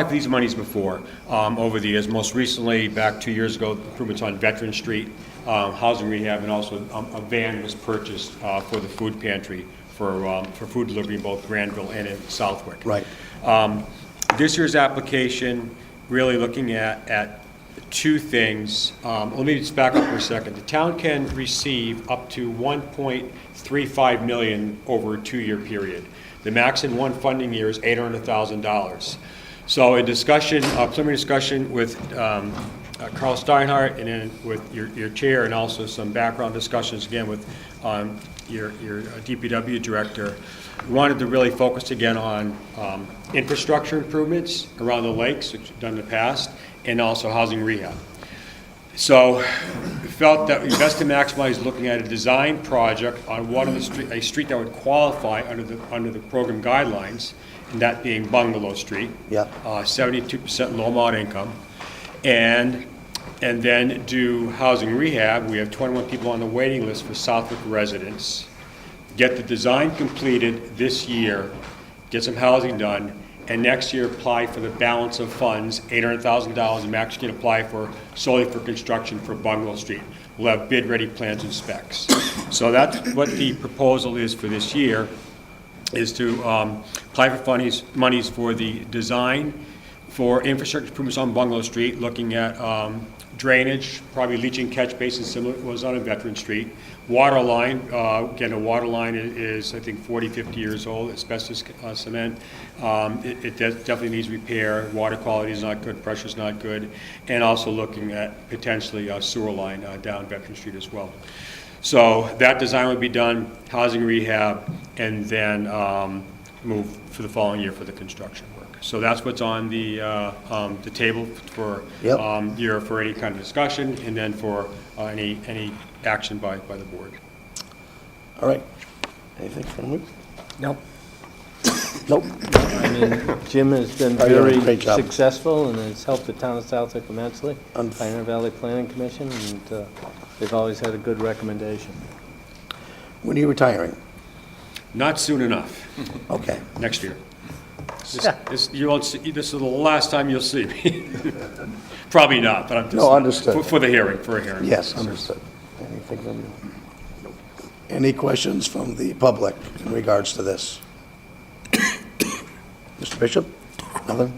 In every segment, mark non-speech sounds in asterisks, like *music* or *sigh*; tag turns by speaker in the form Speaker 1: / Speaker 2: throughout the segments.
Speaker 1: applied for these monies before, um, over the years, most recently, back two years ago, improvements on Veteran Street, um, housing rehab, and also um, a van was purchased uh, for the food pantry for, um, for food delivery in both Granville and in Southwick.
Speaker 2: Right.
Speaker 1: Um, This year's application, really looking at, at two things. Um, Let me just back up for a second. The town can receive up to 1.35 million over a two-year period. The max in one funding year is $800,000. So a discussion, a preliminary discussion with um, uh, Carl Steinhardt and then with your, your chair and also some background discussions again with um, your, your DPW director. We Wanted to really focus again on um, infrastructure improvements around the lakes, which we've done in the past, and also housing rehab. So we felt that we best to maximize looking at a design project on one of the street, a street that would qualify under the, under the program guidelines, and that being Bungalow Street.
Speaker 2: Yeah.
Speaker 1: Uh, seventy-two percent low-amount income. And, and then do housing rehab. We have twenty-one people on the waiting list for Southwick residents. Get the design completed this year, get some housing done, and next year apply for the balance of funds, eight hundred thousand dollars, and max can apply for solely for construction for Bungalow Street. We'll have bid-ready plans and specs. So that's what the proposal is for this year is to um, apply for funnies, monies for the design for infrastructure improvements on Bungalow Street, looking at um, drainage, probably leaching catch basin similar to what was on a Veteran Street. Water line, uh, again, a water line i- is, I think, 40, 50 years old, asbestos uh, cement. Um, It it de- definitely needs repair. Water quality is not good, pressure's not good. And also looking at potentially a sewer line uh, down Veteran Street as well. So that design would be done, housing rehab, and then um, move for the following year for the construction work. So that's what's on the, uh, um, the table for
Speaker 2: Yep.
Speaker 1: um, year, for any kind of discussion, and then for uh, any, any action by, by the board.
Speaker 2: All right. Anything from you?
Speaker 3: Nope.
Speaker 2: Nope.
Speaker 3: I mean, Jim has been
Speaker 2: Oh, you're doing a
Speaker 3: very
Speaker 2: great job.
Speaker 3: successful and has helped the town of Southwick immensely,
Speaker 2: Unf-
Speaker 3: Pioneer Valley Planning Commission, and uh, they've always had a good recommendation.
Speaker 2: When are you retiring?
Speaker 1: Not soon enough,
Speaker 2: Okay.
Speaker 1: next year. This, this- you won't see, this is the last time you'll see me. *laughs* Probably not, but I'm just.
Speaker 2: No, understood.
Speaker 1: for- For the hearing, for a hearing.
Speaker 2: Yes, understood. Anything from you? Any questions from the public in regards to this? Mr. Bishop? Nothing?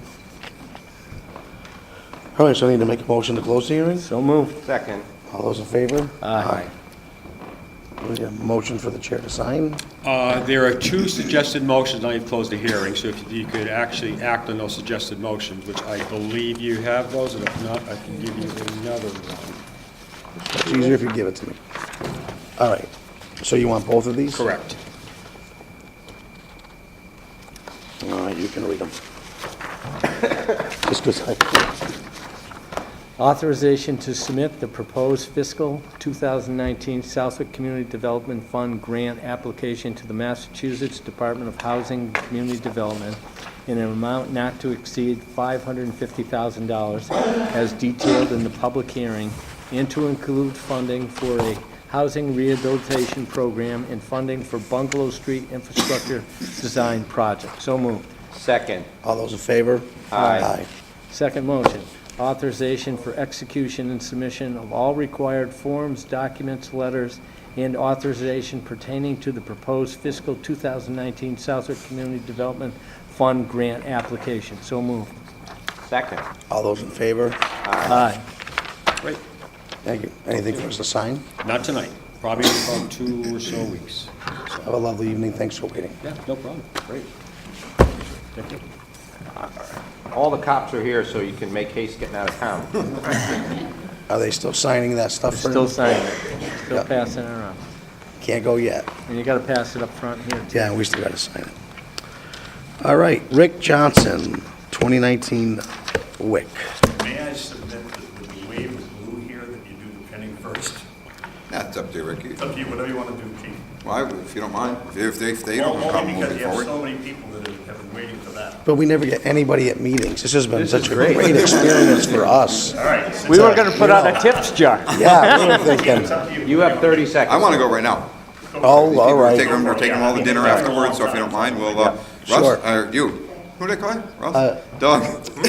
Speaker 2: All right, so I need to make a motion to close the hearing?
Speaker 3: So moved.
Speaker 4: Second.
Speaker 2: All those in favor?
Speaker 3: Aye.
Speaker 2: We have a motion for the chair to sign?
Speaker 1: Uh, There are two suggested motions, I have closed the hearing, so if you could actually act on those suggested motions, which I believe you have those, and if not, I can give you another one.
Speaker 2: It's easier if you give it to me. All right. So you want both of these?
Speaker 1: Correct.
Speaker 2: All right, you can read them. Just 'cause I-
Speaker 3: Authorization to submit the proposed fiscal 2019 Southwick Community Development Fund grant application to the Massachusetts Department of Housing and Community Development in an amount not to exceed $550,000 as detailed in the public hearing, and to include funding for a housing rehabilitation program and funding for Bungalow Street Infrastructure Design Project. So moved.
Speaker 4: Second.
Speaker 2: All those in favor?
Speaker 4: Aye.
Speaker 3: Second motion, authorization for execution and submission of all required forms, documents, letters, and authorization pertaining to the proposed fiscal 2019 Southwick Community Development Fund grant application. So moved.
Speaker 4: Second.
Speaker 2: All those in favor?
Speaker 3: Aye.
Speaker 1: Great.
Speaker 2: Thank you. Anything for us to sign?
Speaker 1: Not tonight, probably in about two or so weeks.
Speaker 2: Have a lovely evening. Thanks for waiting.
Speaker 1: Yeah, no problem. Great. Thank you.
Speaker 4: All the cops are here, so you can make haste getting out of town.
Speaker 2: Are they still signing that stuff? for-
Speaker 3: Still signing it,
Speaker 2: Yeah.
Speaker 3: still passing it around.
Speaker 2: Can't go yet.
Speaker 3: And you gotta pass it up front here, too.
Speaker 2: Yeah, we still got to sign it. All right, Rick Johnson, 2019 WIC.
Speaker 5: May I submit that with the wave of blue here that you do the pinning first? *laughs*
Speaker 6: That's up to you, Ricky.
Speaker 5: It's up to you, whatever you want to do, chief.
Speaker 6: Why, if you don't mind, if they, if they don't
Speaker 5: Only
Speaker 6: come, we'll
Speaker 5: because
Speaker 6: move
Speaker 5: you have so
Speaker 6: forward.
Speaker 5: many people that have been waiting for that.
Speaker 2: But we never get anybody at meetings. This has been
Speaker 4: This
Speaker 2: such
Speaker 4: is
Speaker 2: a
Speaker 4: great.
Speaker 2: great experience for
Speaker 4: *laughs*
Speaker 2: us.
Speaker 5: All right, since
Speaker 4: We were gonna put out a tips jar.
Speaker 2: Yeah, we were thinking,
Speaker 5: it's up to you.
Speaker 4: You have 30
Speaker 6: I
Speaker 4: seconds.
Speaker 6: want to go right now.
Speaker 2: oh, all
Speaker 6: We're taking
Speaker 2: right.
Speaker 6: them, we're taking them all to dinner afterwards, so if you don't mind, we'll, uh,
Speaker 2: Sure. Uh,
Speaker 6: Russ, uh, you,
Speaker 2: *laughs*
Speaker 6: Who they call you? Ralph? Doug?